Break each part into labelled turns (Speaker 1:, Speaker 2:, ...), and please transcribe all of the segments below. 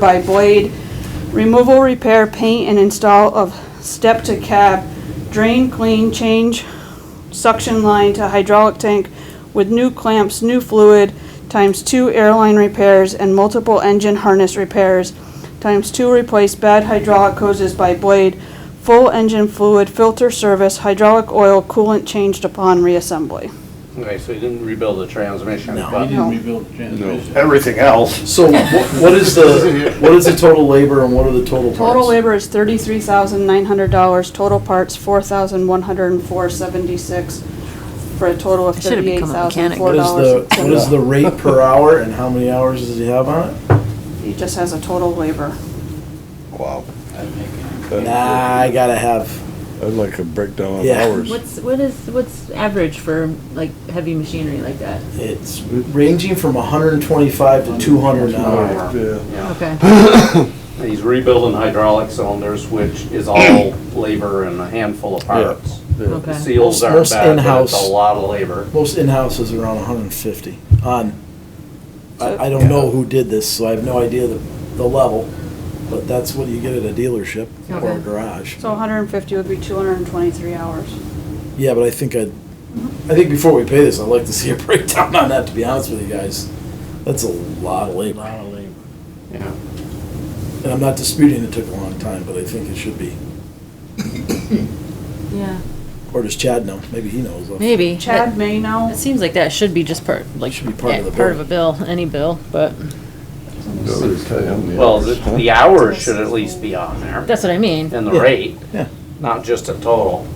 Speaker 1: by Blade, removal, repair, paint, and install of step to cab, drain, clean, change suction line to hydraulic tank with new clamps, new fluid, times two airline repairs and multiple engine harness repairs, times two replace bad hydraulic hoses by Blade, full engine fluid, filter service, hydraulic oil, coolant changed upon reassembly.
Speaker 2: Okay, so you didn't rebuild the transmission,
Speaker 3: No, he
Speaker 2: but
Speaker 3: didn't rebuild the transmission.
Speaker 2: everything else,
Speaker 3: So wha- what is the, what is the total labor and what are the total parts?
Speaker 1: Total labor is thirty-three thousand nine hundred dollars, total parts four thousand one hundred and four seventy-six, for a total of
Speaker 4: I should have
Speaker 1: thirty-eight
Speaker 4: become a
Speaker 1: thousand
Speaker 4: mechanic.
Speaker 1: four
Speaker 3: What is
Speaker 1: dollars.
Speaker 3: the, what is the rate per hour and how many hours does he have on it?
Speaker 1: He just has a total labor.
Speaker 5: Wow.
Speaker 3: Nah, I gotta have,
Speaker 5: I'd like a breakdown of
Speaker 3: Yeah.
Speaker 5: hours.
Speaker 4: What's, what is, what's average for like heavy machinery like that?
Speaker 3: it's ranging from hundred and twenty-five to two hundred an hour.
Speaker 5: Yeah.
Speaker 2: yeah.
Speaker 4: Okay.
Speaker 2: uh, He's rebuilding hydraulic cylinders, which is all labor and a handful of parts. The
Speaker 4: Okay.
Speaker 2: Seals
Speaker 3: Most-
Speaker 2: aren't
Speaker 3: most
Speaker 2: bad, but it's
Speaker 3: in-house-
Speaker 2: a lot of labor.
Speaker 3: Most in-houses are around hundred and fifty on, I, I don't know who did this, so I have no idea the, the level, but that's what you get at a dealership or a
Speaker 4: Okay.
Speaker 3: garage.
Speaker 1: So hundred and fifty would be two hundred and twenty-three hours.
Speaker 3: Yeah, but I think I'd, I think before we pay this, I'd like to see a breakdown on that, to be honest with you guys. That's a lot of labor. Lot of labor.
Speaker 2: Yeah.
Speaker 3: And I'm not disputing it took a long time, but I think it should be.
Speaker 4: Yeah.
Speaker 3: Or does Chad know? Maybe he knows.
Speaker 4: Maybe.
Speaker 1: Chad may know.
Speaker 4: It seems like that should be just part, like,
Speaker 3: Should be part of
Speaker 4: yeah,
Speaker 3: the
Speaker 4: part of a bill, any bill, but
Speaker 2: Well, the, the hours should at least be on there,
Speaker 4: that's what I mean.
Speaker 2: and the
Speaker 3: Yeah.
Speaker 2: rate,
Speaker 3: Yeah.
Speaker 2: not just a total.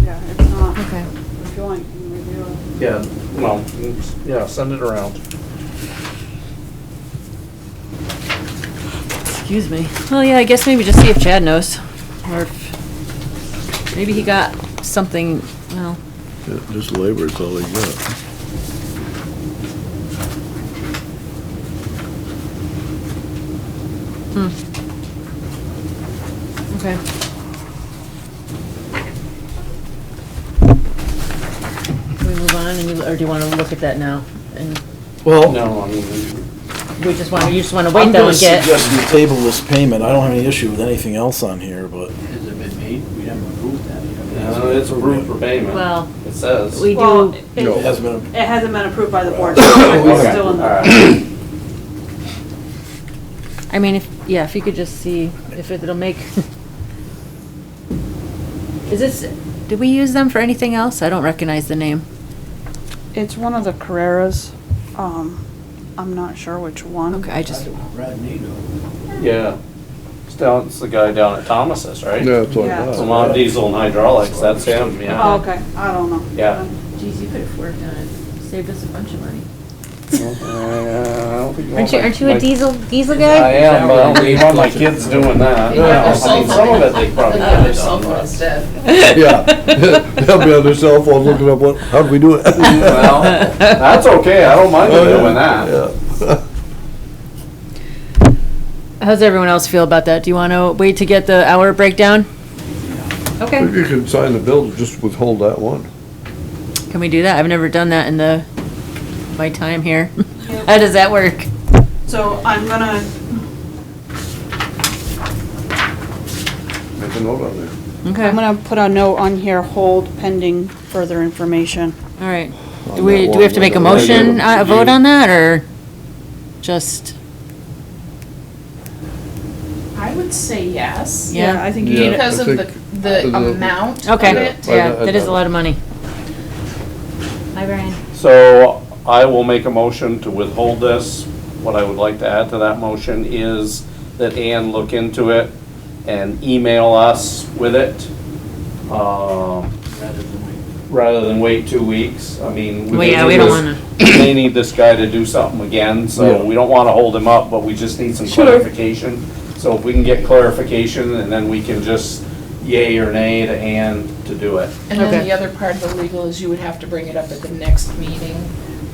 Speaker 1: Yeah, if not,
Speaker 4: Okay.
Speaker 1: if you want, you can review it.
Speaker 2: Yeah. Well, yeah, send it around.
Speaker 4: Excuse me. Well, yeah, I guess maybe just see if Chad knows, or if, maybe he got something, well,
Speaker 5: Just labor is all they got.
Speaker 4: okay. Can we move on, and you, or do you wanna look at that now? And
Speaker 3: Well,
Speaker 2: No, I mean,
Speaker 4: we just wanna, you just wanna
Speaker 3: I'm
Speaker 4: wait though
Speaker 3: gonna
Speaker 4: and get.
Speaker 3: suggest we table this payment. I don't have any issue with anything else on here, but
Speaker 6: Has it been made? We haven't approved that yet.
Speaker 2: uh, it's approved for payment.
Speaker 4: Well,
Speaker 2: It says.
Speaker 4: We
Speaker 1: Well,
Speaker 4: do,
Speaker 3: it
Speaker 1: it
Speaker 3: hasn't been,
Speaker 1: it hasn't been approved by the board, so it's
Speaker 2: Okay,
Speaker 1: still in
Speaker 2: all
Speaker 1: the.
Speaker 2: right.
Speaker 4: I mean, if, yeah, if you could just see if it'll make. Is this, did we use them for anything else? I don't recognize the name.
Speaker 1: It's one of the Carreras, um, I'm not sure which one.
Speaker 4: Okay, I just,
Speaker 6: Brad Nato.
Speaker 2: Yeah. It's down, it's the guy down at Thomas's, right?
Speaker 5: Yeah, that's all
Speaker 1: Yeah.
Speaker 5: I
Speaker 2: It's a
Speaker 5: got.
Speaker 2: lot of diesel and hydraulics, that's him, yeah.
Speaker 1: Oh, okay, I don't know.
Speaker 2: Yeah.
Speaker 4: geez, you could have worked on it, saved us a bunch of money.
Speaker 2: Aren't
Speaker 4: Aren't you, aren't you a diesel, diesel
Speaker 2: I
Speaker 4: guy?
Speaker 2: am, but I don't need one of my kids doing that.
Speaker 7: You have their
Speaker 2: I mean, some of it they probably
Speaker 7: Another
Speaker 2: could have
Speaker 7: cell
Speaker 2: done.
Speaker 7: phone
Speaker 2: but-
Speaker 7: instead.
Speaker 5: Yeah. They'll be on their cell phone looking up what, how do we do it?
Speaker 2: Well, that's okay, I don't
Speaker 5: Oh,
Speaker 2: mind them doing that.
Speaker 5: Yeah.
Speaker 4: How's everyone else feel about that? Do you wanna wait to get the hour breakdown?
Speaker 5: If
Speaker 4: Okay,
Speaker 5: you can sign the bill, just withhold that one.
Speaker 4: can we do that? I've never done that in the, my time here. How does that work?
Speaker 1: So I'm gonna,
Speaker 5: Make a note on there.
Speaker 4: Okay,
Speaker 1: I'm
Speaker 4: all
Speaker 1: gonna put a note on here, hold pending further information.
Speaker 4: right.
Speaker 5: On
Speaker 4: Do we,
Speaker 5: that
Speaker 4: do we have to
Speaker 5: one,
Speaker 4: make a
Speaker 5: whether they give
Speaker 4: motion,
Speaker 5: it
Speaker 4: uh,
Speaker 5: to
Speaker 4: a vote
Speaker 5: you.
Speaker 4: on that, or just?
Speaker 7: I would say yes.
Speaker 4: Yeah.
Speaker 1: I think you
Speaker 5: Yeah.
Speaker 1: need it.
Speaker 7: Because of the,
Speaker 5: think-
Speaker 7: the
Speaker 5: I think-
Speaker 7: amount of
Speaker 4: Okay,
Speaker 7: it.
Speaker 5: Yeah,
Speaker 4: yeah,
Speaker 5: I- I-
Speaker 4: that is a lot of money. Hi, Brian.
Speaker 2: So I will make a motion to withhold this. What I would like to add to that motion is that Ann look into it and email us with it. Um, Rather than wait two weeks, I mean.
Speaker 4: Well, yeah, we don't wanna-
Speaker 2: They need this guy to do something again, so
Speaker 5: Yeah.
Speaker 2: we don't wanna hold him up, but we just need some
Speaker 4: Sure.
Speaker 2: clarification. So if we can get clarification, and then we can just yay or nay to Ann to do it.
Speaker 7: And then
Speaker 4: Okay.
Speaker 7: the other part of the legal is you would have to bring it up at the next meeting,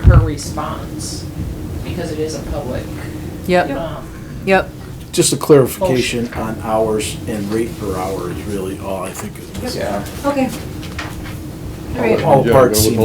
Speaker 7: her response, because it is a public,
Speaker 4: Yep,
Speaker 7: um,
Speaker 4: yep.
Speaker 3: just a clarification on hours and rate per hour is really all I think is.
Speaker 2: Yeah.
Speaker 4: Okay. All right.
Speaker 3: All
Speaker 5: Yeah,
Speaker 3: parts
Speaker 5: go with
Speaker 3: seem